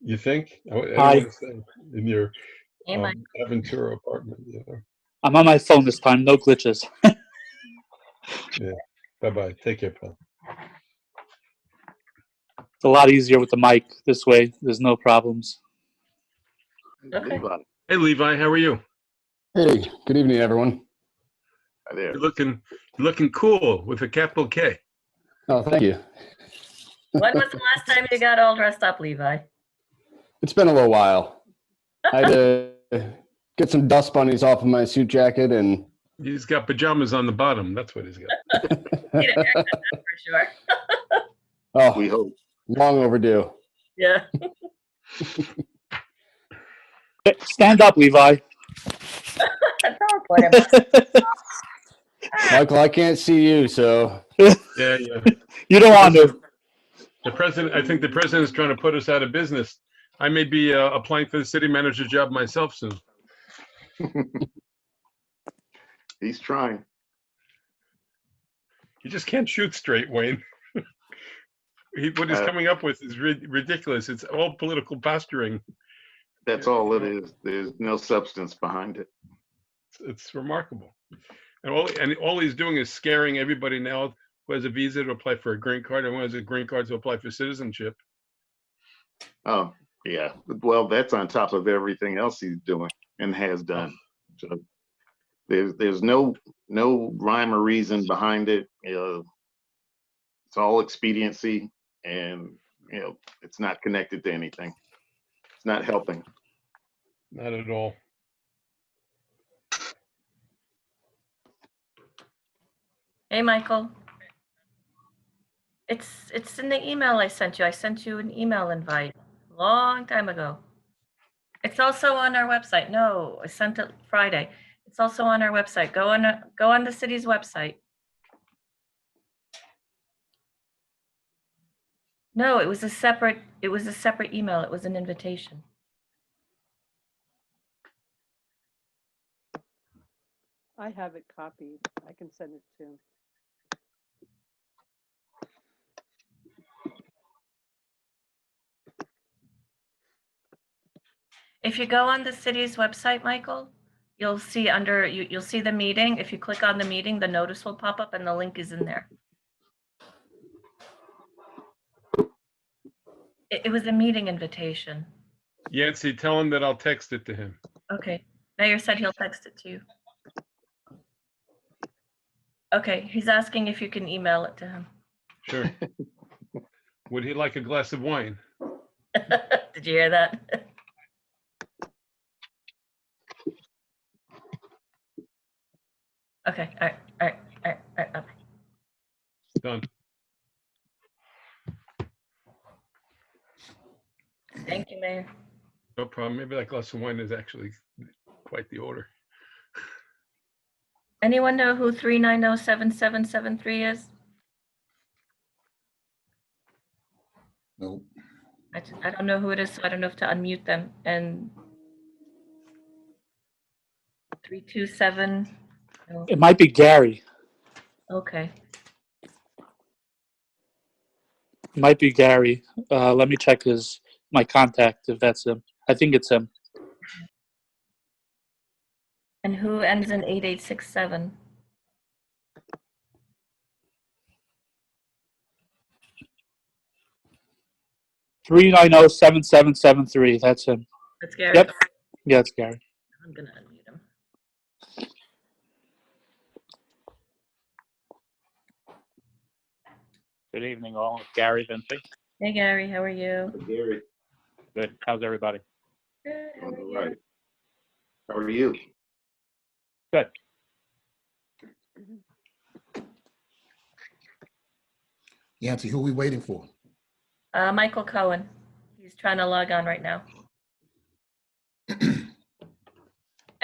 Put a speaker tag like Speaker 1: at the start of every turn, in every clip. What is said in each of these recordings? Speaker 1: You think? I w- I don't
Speaker 2: Hi.
Speaker 1: wanna say In your
Speaker 3: Oh.
Speaker 4: Hey, Mike.
Speaker 1: um, Aventura apartment, yeah.
Speaker 2: I'm on my phone this time. No glitches.
Speaker 1: Bye-bye. Take care, pal.
Speaker 2: It's a lot easier with the mic this way. There's no problems.
Speaker 4: Okay.
Speaker 5: Levi,
Speaker 3: Hey Levi, how are you?
Speaker 6: Hey, good evening, everyone.
Speaker 5: hi there.
Speaker 3: You're looking, you're looking cool with a capital K.
Speaker 6: Oh, thank you.
Speaker 4: When was the last time you got all dressed up, Levi?
Speaker 6: It's been a little while. I had to get some dust bunnies off of my suit jacket and
Speaker 3: He's got pajamas on the bottom. That's what he's got.
Speaker 4: Need a haircut, that's for sure.
Speaker 5: We
Speaker 6: oh,
Speaker 5: hope.
Speaker 6: long overdue.
Speaker 4: Yeah.
Speaker 2: Hey, Stand up, Levi.
Speaker 4: Don't put him.
Speaker 6: Michael, I can't see you, so
Speaker 3: Yeah, yeah.
Speaker 2: You don't want to.
Speaker 3: The president, I think the president is trying to put us out of business. I may be uh, applying for the city manager job myself soon.
Speaker 5: He's trying.
Speaker 3: You just can't shoot straight, Wayne. He, what he's
Speaker 5: Uh,
Speaker 3: coming up with is rid- ridiculous. It's all political posturing.
Speaker 5: That's all it is. There's no substance behind it.
Speaker 3: It's, it's remarkable. And all, and all he's doing is scaring everybody now who has a visa to apply for a green card and who has a green card to apply for citizenship.
Speaker 5: Oh, yeah. Well, that's on top of everything else he's doing and has done. So there's there's no no rhyme or reason behind it. You know, it's all expediency, and you know it's not connected to anything. It's not helping.
Speaker 3: Not at all.
Speaker 4: Hey, Michael. It's, it's in the email I sent you. I sent you an email invite long time ago. It's also on our website. No, I sent it Friday. It's also on our website. Go on, uh, go on the city's website. No, it was a separate, it was a separate email. It was an invitation.
Speaker 7: I have it copied. I can send it to him.
Speaker 4: If you go on the city's website, Michael, you'll see under, you, you'll see the meeting. If you click on the meeting, the notice will pop up and the link is in there. It, it was a meeting invitation.
Speaker 3: Yancy, tell him that I'll text it to him.
Speaker 4: Okay, Mayor said he'll text it to you. Okay, he's asking if you can email it to him.
Speaker 3: Sure. Would he like a glass of wine?
Speaker 4: Did you hear that? Okay, all right, all right, all right, all right. okay.
Speaker 3: Done.
Speaker 4: Thank you, Mayor.
Speaker 3: No problem. Maybe that glass of wine is actually quite the order.
Speaker 4: Anyone know who three nine oh seven seven seven three is?
Speaker 8: Nope.
Speaker 4: I, t- I don't know who it is, so I don't know if to unmute them and three two seven, no,
Speaker 2: It might be Gary.
Speaker 4: okay.
Speaker 2: It might be Gary. Uh, let me check his my contact if that's him. I think it's him.
Speaker 4: And who ends in eight eight six seven?
Speaker 2: Three nine zero seven seven seven three. That's him.
Speaker 4: That's Gary.
Speaker 2: Yep. Yeah, it's Gary.
Speaker 4: I'm gonna unmute him.
Speaker 9: Good evening, all. It's Gary Vinci.
Speaker 4: Hey, Gary, how are you?
Speaker 5: Gary,
Speaker 9: Good. How's everybody?
Speaker 4: Good, how
Speaker 5: on
Speaker 4: are
Speaker 5: the
Speaker 4: you?
Speaker 5: right. How are you?
Speaker 9: Good.
Speaker 8: Yancy, who we waiting for?
Speaker 4: Uh, Michael Cohen. He's trying to log on right now.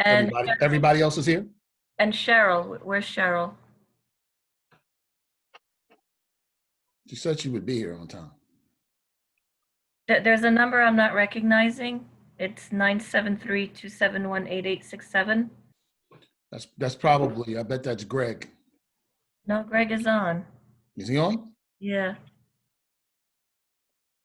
Speaker 4: And,
Speaker 8: Everybody, everybody else is here?
Speaker 4: and Cheryl, where's Cheryl?
Speaker 8: She said she would be here on time.
Speaker 4: There, there's a number I'm not recognizing. It's nine seven three two seven one eight eight six seven.
Speaker 8: That's, that's probably, I bet that's Greg.
Speaker 4: No, Greg is on.
Speaker 8: Is he on?
Speaker 4: Yeah,